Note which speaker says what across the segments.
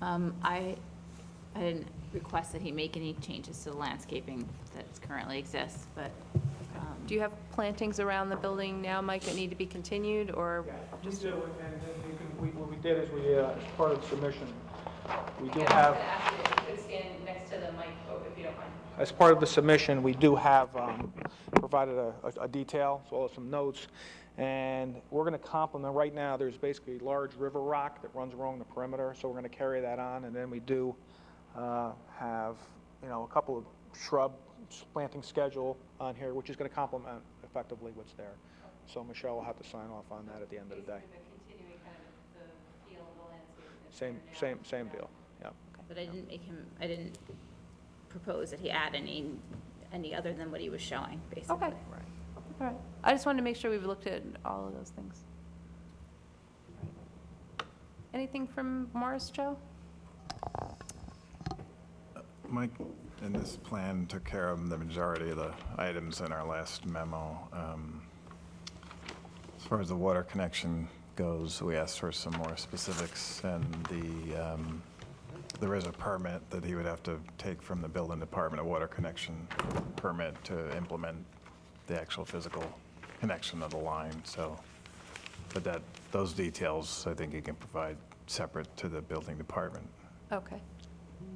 Speaker 1: Um, I, I didn't request that he make any changes to the landscaping that currently exists, but, um,
Speaker 2: Do you have plantings around the building now, Mike, that need to be continued, or
Speaker 3: Yeah, we
Speaker 2: just?
Speaker 3: do, and then you can, we, what we did is we, uh, as part of the submission, we do have,
Speaker 2: could stand next to the mic, oh, if you don't mind.
Speaker 3: as part of the submission, we do have, um, provided a, a- a detail, as well as some notes, and we're gonna complement, right now, there's basically large river rock that runs along the perimeter, so we're gonna carry that on, and then we do, uh, have, you know, a couple of shrub planting schedule on here, which is gonna complement effectively what's there. So Michelle will have to sign off on that at the end of the day. Same, same, same deal, yeah.
Speaker 1: but I didn't make him, I didn't propose that he add any, any other than what he was showing, basically.
Speaker 2: Okay. All right. I just wanted to make sure we've looked at all of those things. Anything from Morris, Joe?
Speaker 4: Mike, in this plan, took care of the majority of the items in our last memo. Um, As far as the water connection goes, we asked for some more specifics, and the, um, there is a permit that he would have to take from the building department, a water connection permit to implement the actual physical connection of the line, so, but that, those details, I think you can provide separate to the building department.
Speaker 2: Okay.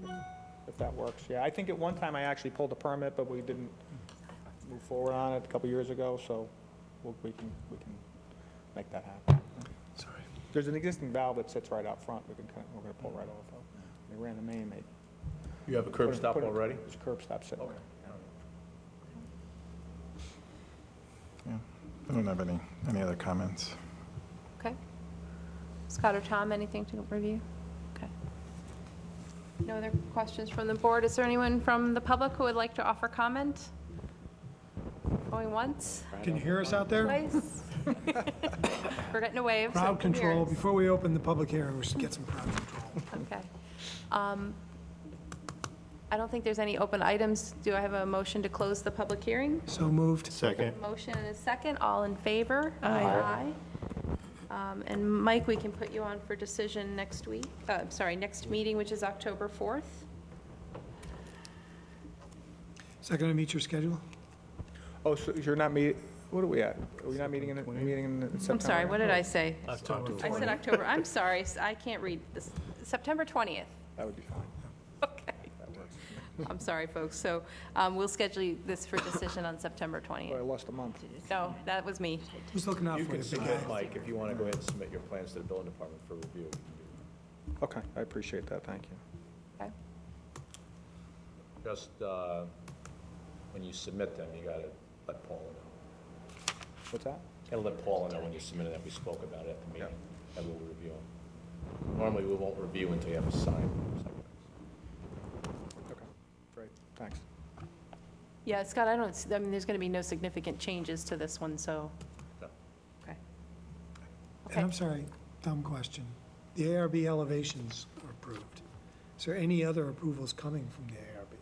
Speaker 3: if that works. Yeah, I think at one time I actually pulled a permit, but we didn't move forward on it a couple years ago, so we'll- we can, we can make that happen.
Speaker 4: Sorry.
Speaker 3: There's an existing valve that sits right out front, we can, kind of- we're gonna pull right off of. They ran the main, they.
Speaker 5: You have a curb
Speaker 3: put it-
Speaker 5: stop
Speaker 3: put it-
Speaker 5: already?
Speaker 3: There's a curb stop sitting there.
Speaker 4: Yeah, I don't have any, any other comments.
Speaker 2: Okay. Scott or Tom, anything to review? Okay. No other questions from the board? Is there anyone from the public who would like to offer comment? Going once,
Speaker 6: Can you hear us out there?
Speaker 2: twice? We're getting a wave. so
Speaker 6: Crowd
Speaker 2: come here.
Speaker 6: control, before we open the public hearing, we should get some crowd control.
Speaker 2: Okay. Um, I don't think there's any open items. Do I have a motion to close the public hearing?
Speaker 6: So moved.
Speaker 5: Second.
Speaker 2: Motion and a second, all in favor? Aye. Um, And Mike, we can put you on for decision next week, uh, I'm sorry, next meeting, which is October 4th.
Speaker 6: Is that going to meet your schedule?
Speaker 3: Oh, so you're not meet, what are we at? Are we not meeting in, meeting in September?
Speaker 2: I'm sorry, what did I say?
Speaker 5: October
Speaker 2: I said October, I'm sorry, s- I can't read this, September 20th.
Speaker 3: That would be fine.
Speaker 2: Okay. I'm sorry, folks, so um, we'll schedule this for decision on September 20th.
Speaker 3: Boy, I lost a month.
Speaker 2: No, that was me.
Speaker 6: Who's looking out
Speaker 5: You
Speaker 6: for you?
Speaker 5: can
Speaker 6: big guy?
Speaker 5: submit, Mike, if you want to go ahead and submit your plans to the building department for review.
Speaker 3: Okay, I appreciate that, thank you.
Speaker 2: Okay.
Speaker 5: Just, uh, when you submit them, you gotta let Paula know.
Speaker 3: What's that?
Speaker 5: And let Paula know when you submit it, that we spoke about it at the meeting, that we'll review them. Normally, we won't review until you have a sign.
Speaker 3: Okay, great, thanks.
Speaker 2: Yeah, Scott, I don't, s- I mean, there's going to be no significant changes to this one, so, okay.
Speaker 6: And
Speaker 2: Okay,
Speaker 6: I'm sorry, dumb question. The ARB elevations are approved. Is there any other approvals coming from the ARB?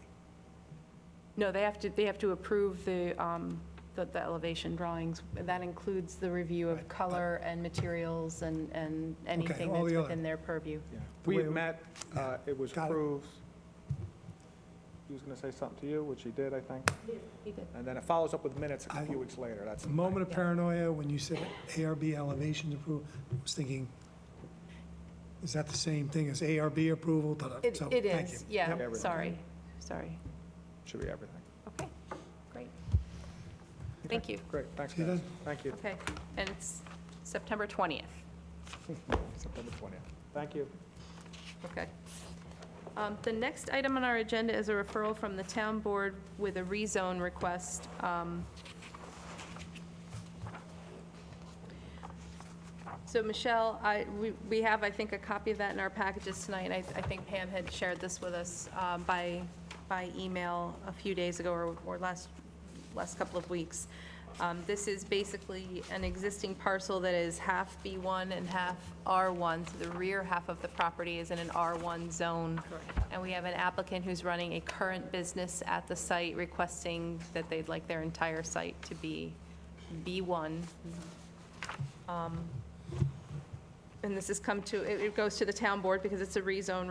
Speaker 2: no, they have to, they have to approve the, um, the the elevation drawings. That includes the review of color and materials and, and anything
Speaker 6: all
Speaker 2: that's
Speaker 6: the other-
Speaker 2: within their purview.
Speaker 3: Yeah.
Speaker 6: The
Speaker 3: We
Speaker 6: way-
Speaker 3: met, uh, it was
Speaker 6: Got it.
Speaker 3: approved. He was going to say something to you, which he did, I think.
Speaker 2: He did.
Speaker 3: And then it follows up with minutes a
Speaker 6: I-
Speaker 3: few weeks later, that's.
Speaker 6: A moment of paranoia when you said ARB elevations approval, I was thinking, is that the same thing as ARB approval? Ta-da.
Speaker 2: It
Speaker 6: So,
Speaker 2: it
Speaker 6: thank
Speaker 2: is,
Speaker 6: you.
Speaker 3: Yep.
Speaker 2: yeah,
Speaker 3: Everything.
Speaker 2: sorry, sorry.
Speaker 3: Should be everything.
Speaker 2: Okay, great. Thank you.
Speaker 3: Great, thanks,
Speaker 6: See you
Speaker 3: guys.
Speaker 6: then.
Speaker 3: Thank you.
Speaker 2: Okay, and it's September 20th.
Speaker 3: September 20th. Thank you.
Speaker 2: Okay. Um, The next item on our agenda is a referral from the town board with a rezone request. um, So Michelle, I, we, we have, I think, a copy of that in our packages tonight, and I, I think Pam had shared this with us um, by, by email a few days ago or, or last, last couple of weeks. Um, This is basically an existing parcel that is half B1 and half R1, so the rear half of the property is in an R1 zone. And we have an applicant who's running a current business at the site requesting that they'd like their entire site to be B1, and this has come to, it it goes to the town board because it's a rezone